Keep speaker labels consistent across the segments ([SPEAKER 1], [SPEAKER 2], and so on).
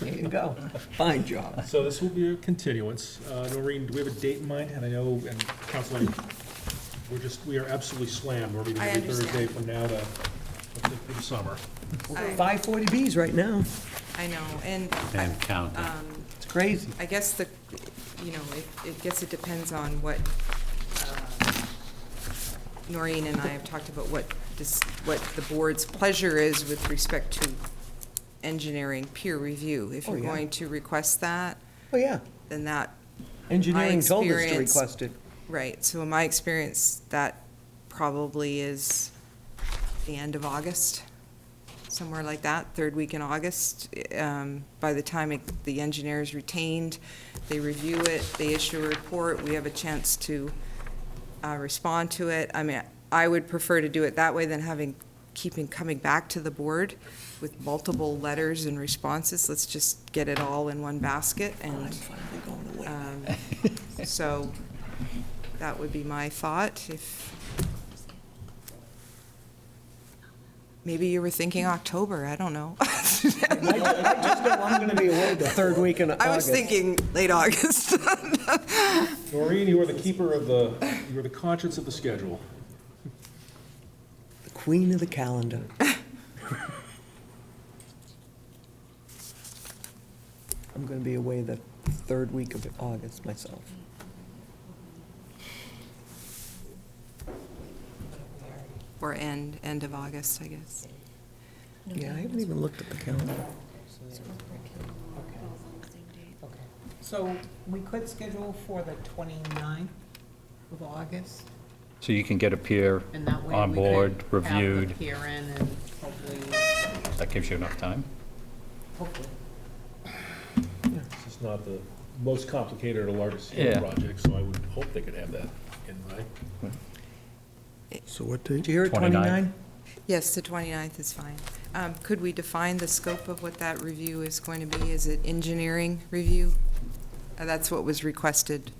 [SPEAKER 1] There you go. Fine job.
[SPEAKER 2] So this will be a continuance. Uh, Noreen, do we have a date in mind? And I know, and Councilor, we're just, we are absolutely slammed. We're meeting
[SPEAKER 3] I
[SPEAKER 2] every Thursday
[SPEAKER 3] understand.
[SPEAKER 2] from now to, through the summer.
[SPEAKER 3] I-
[SPEAKER 1] Five forty Bs right now.
[SPEAKER 3] I know, and I-
[SPEAKER 4] And counting.
[SPEAKER 1] It's crazy.
[SPEAKER 3] I guess the, you know, it, it guess it depends on what, uh, Noreen and I have talked about what this, what the board's pleasure is with respect to engineering peer review. If
[SPEAKER 1] Oh,
[SPEAKER 3] you're
[SPEAKER 1] yeah.
[SPEAKER 3] going to request that,
[SPEAKER 1] Oh, yeah.
[SPEAKER 3] then that,
[SPEAKER 1] Engineering told us to
[SPEAKER 3] experience-
[SPEAKER 1] request it.
[SPEAKER 3] right, so in my experience, that probably is the end of August, somewhere like that, third week in August. Um, By the time it- the engineer is retained, they review it, they issue a report, we have a chance to uh, respond to it. I mean, I would prefer to do it that way than having, keeping, coming back to the board with multiple letters and responses. Let's just get it all in one basket and. um, So that would be my thought if Maybe you were thinking October, I don't know.
[SPEAKER 1] I'm going to be away the third week in August.
[SPEAKER 3] I was thinking late August.
[SPEAKER 2] Noreen, you are the keeper of the, you are the conscience of the schedule.
[SPEAKER 1] The queen of the calendar. I'm going to be away the third week of August myself.
[SPEAKER 3] Or end, end of August, I guess.
[SPEAKER 1] Yeah, I haven't even looked at the calendar.
[SPEAKER 5] So we could schedule for the 29th of August,
[SPEAKER 4] So you can get a peer
[SPEAKER 5] and that way
[SPEAKER 4] on
[SPEAKER 5] we
[SPEAKER 4] board,
[SPEAKER 5] could have
[SPEAKER 4] reviewed.
[SPEAKER 5] the hearing and hopefully,
[SPEAKER 4] That gives you enough time?
[SPEAKER 5] hopefully.
[SPEAKER 2] This is not the most complicated or largest
[SPEAKER 4] Yeah.
[SPEAKER 2] scale project, so I would hope they could have that in mind.
[SPEAKER 6] So what date?
[SPEAKER 1] Did you hear it,
[SPEAKER 4] 29?
[SPEAKER 1] 29?
[SPEAKER 3] Yes, the 29th is fine. Um, Could we define the scope of what that review is going to be? Is it engineering review? Uh, That's what was requested.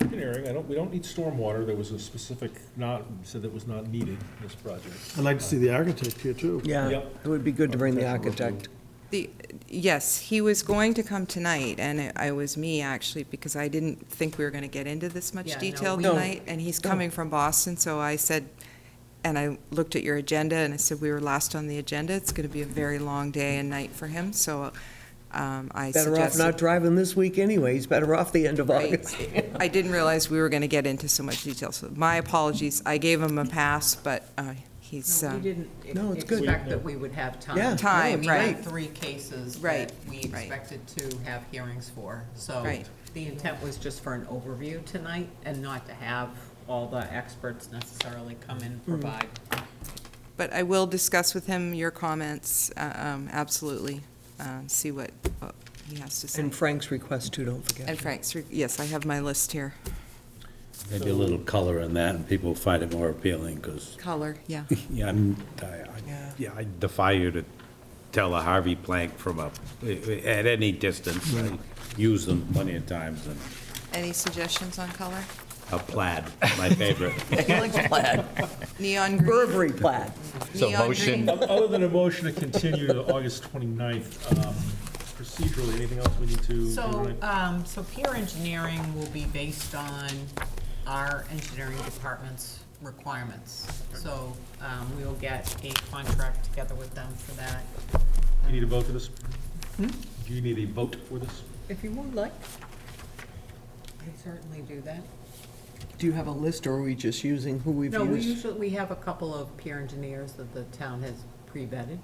[SPEAKER 2] Engineering, I don't, we don't need stormwater. There was a specific, not, said that was not needed in this project.
[SPEAKER 6] I'd like to see the architect here, too.
[SPEAKER 1] Yeah,
[SPEAKER 2] Yep.
[SPEAKER 1] it would be good to bring the architect.
[SPEAKER 3] The, yes, he was going to come tonight, and it I was me, actually, because I didn't think we were going to get into this
[SPEAKER 5] Yeah,
[SPEAKER 3] much
[SPEAKER 5] no,
[SPEAKER 3] detail
[SPEAKER 5] we-
[SPEAKER 1] No.
[SPEAKER 3] tonight. And he's coming from Boston, so I said, and I looked at your agenda, and I said, we were last on the agenda. It's going to be a very long day and night for him, so um, I
[SPEAKER 1] Better off not
[SPEAKER 3] suggested.
[SPEAKER 1] driving this week anyway. He's better off the end of August.
[SPEAKER 3] Right. I didn't realize we were going to get into so much detail, so my apologies. I gave him a pass, but uh, he's,
[SPEAKER 5] No, we
[SPEAKER 3] um,
[SPEAKER 5] didn't
[SPEAKER 1] No, it's
[SPEAKER 5] ex-
[SPEAKER 1] good.
[SPEAKER 5] expect that we would have time.
[SPEAKER 1] Yeah.
[SPEAKER 3] Time,
[SPEAKER 5] We had
[SPEAKER 3] right.
[SPEAKER 5] three cases
[SPEAKER 3] Right,
[SPEAKER 5] that we
[SPEAKER 3] right.
[SPEAKER 5] expected to have hearings for. So
[SPEAKER 3] Right.
[SPEAKER 5] the intent was just for an overview tonight and not to have all the experts necessarily come in
[SPEAKER 3] Mm-hmm.
[SPEAKER 5] and provide.
[SPEAKER 3] But I will discuss with him your comments, uh, um, absolutely, uh, see what what he has to say.
[SPEAKER 1] And Frank's request too, don't forget.
[SPEAKER 3] And Frank's, re- yes, I have my list here.
[SPEAKER 4] Maybe a little color in that, and people find it more appealing, because,
[SPEAKER 3] Color, yeah.
[SPEAKER 4] yeah, I'm, I- I, yeah, I defy you to tell a Harvey plank from a, at any distance. I Use them plenty of times, and
[SPEAKER 3] Any suggestions on color?
[SPEAKER 4] a plaid, my favorite.
[SPEAKER 3] Neon green?
[SPEAKER 1] Burberry plaid.
[SPEAKER 4] So
[SPEAKER 3] Neon
[SPEAKER 4] motion,
[SPEAKER 3] green.
[SPEAKER 2] Other than a motion to continue to August 29th, um, procedurally, anything else we need to?
[SPEAKER 5] So,
[SPEAKER 2] override?
[SPEAKER 5] um, so peer engineering will be based on our engineering department's requirements. So, um, we will get a contract together with them for that.
[SPEAKER 2] You need a vote for this? Do you need a vote for this?
[SPEAKER 5] If you would like. I'd certainly do that.
[SPEAKER 1] Do you have a list or are we just using who we've
[SPEAKER 5] No, we
[SPEAKER 1] used?
[SPEAKER 5] usually, we have a couple of peer engineers that the town has pre-vetted.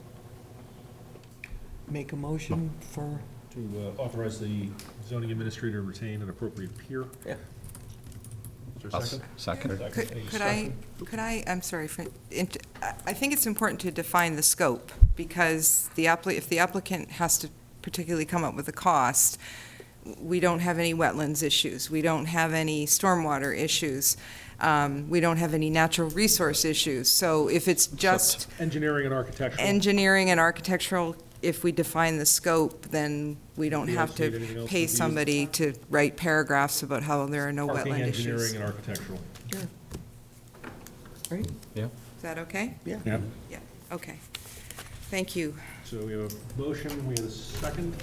[SPEAKER 1] Make a motion for,
[SPEAKER 2] To uh, authorize the zoning administrator to retain an appropriate peer?
[SPEAKER 1] yeah.
[SPEAKER 2] Is there a
[SPEAKER 4] I'll
[SPEAKER 2] second?
[SPEAKER 4] second.
[SPEAKER 2] Second. Any
[SPEAKER 3] Could could I,
[SPEAKER 2] discussion?
[SPEAKER 3] could I, I'm sorry, Fran- int- I I think it's important to define the scope, because the appli, if the applicant has to particularly come up with a cost, we don't have any wetlands issues, we don't have any stormwater issues, um, we don't have any natural resource issues, so if it's just
[SPEAKER 2] Engineering and architectural.
[SPEAKER 3] engineering and architectural, if we define the scope, then we don't
[SPEAKER 2] Do you
[SPEAKER 3] have
[SPEAKER 2] guys need anything
[SPEAKER 3] to
[SPEAKER 2] else
[SPEAKER 3] pay
[SPEAKER 2] with these?
[SPEAKER 3] somebody to write paragraphs about how there are no
[SPEAKER 2] Parking,
[SPEAKER 3] wetland
[SPEAKER 2] engineering
[SPEAKER 3] issues.
[SPEAKER 2] and architectural.
[SPEAKER 1] Right?
[SPEAKER 4] Yeah.
[SPEAKER 3] Is that okay?
[SPEAKER 2] Yeah.
[SPEAKER 3] Yeah, okay. Thank you.
[SPEAKER 2] So we have a motion, we have a second.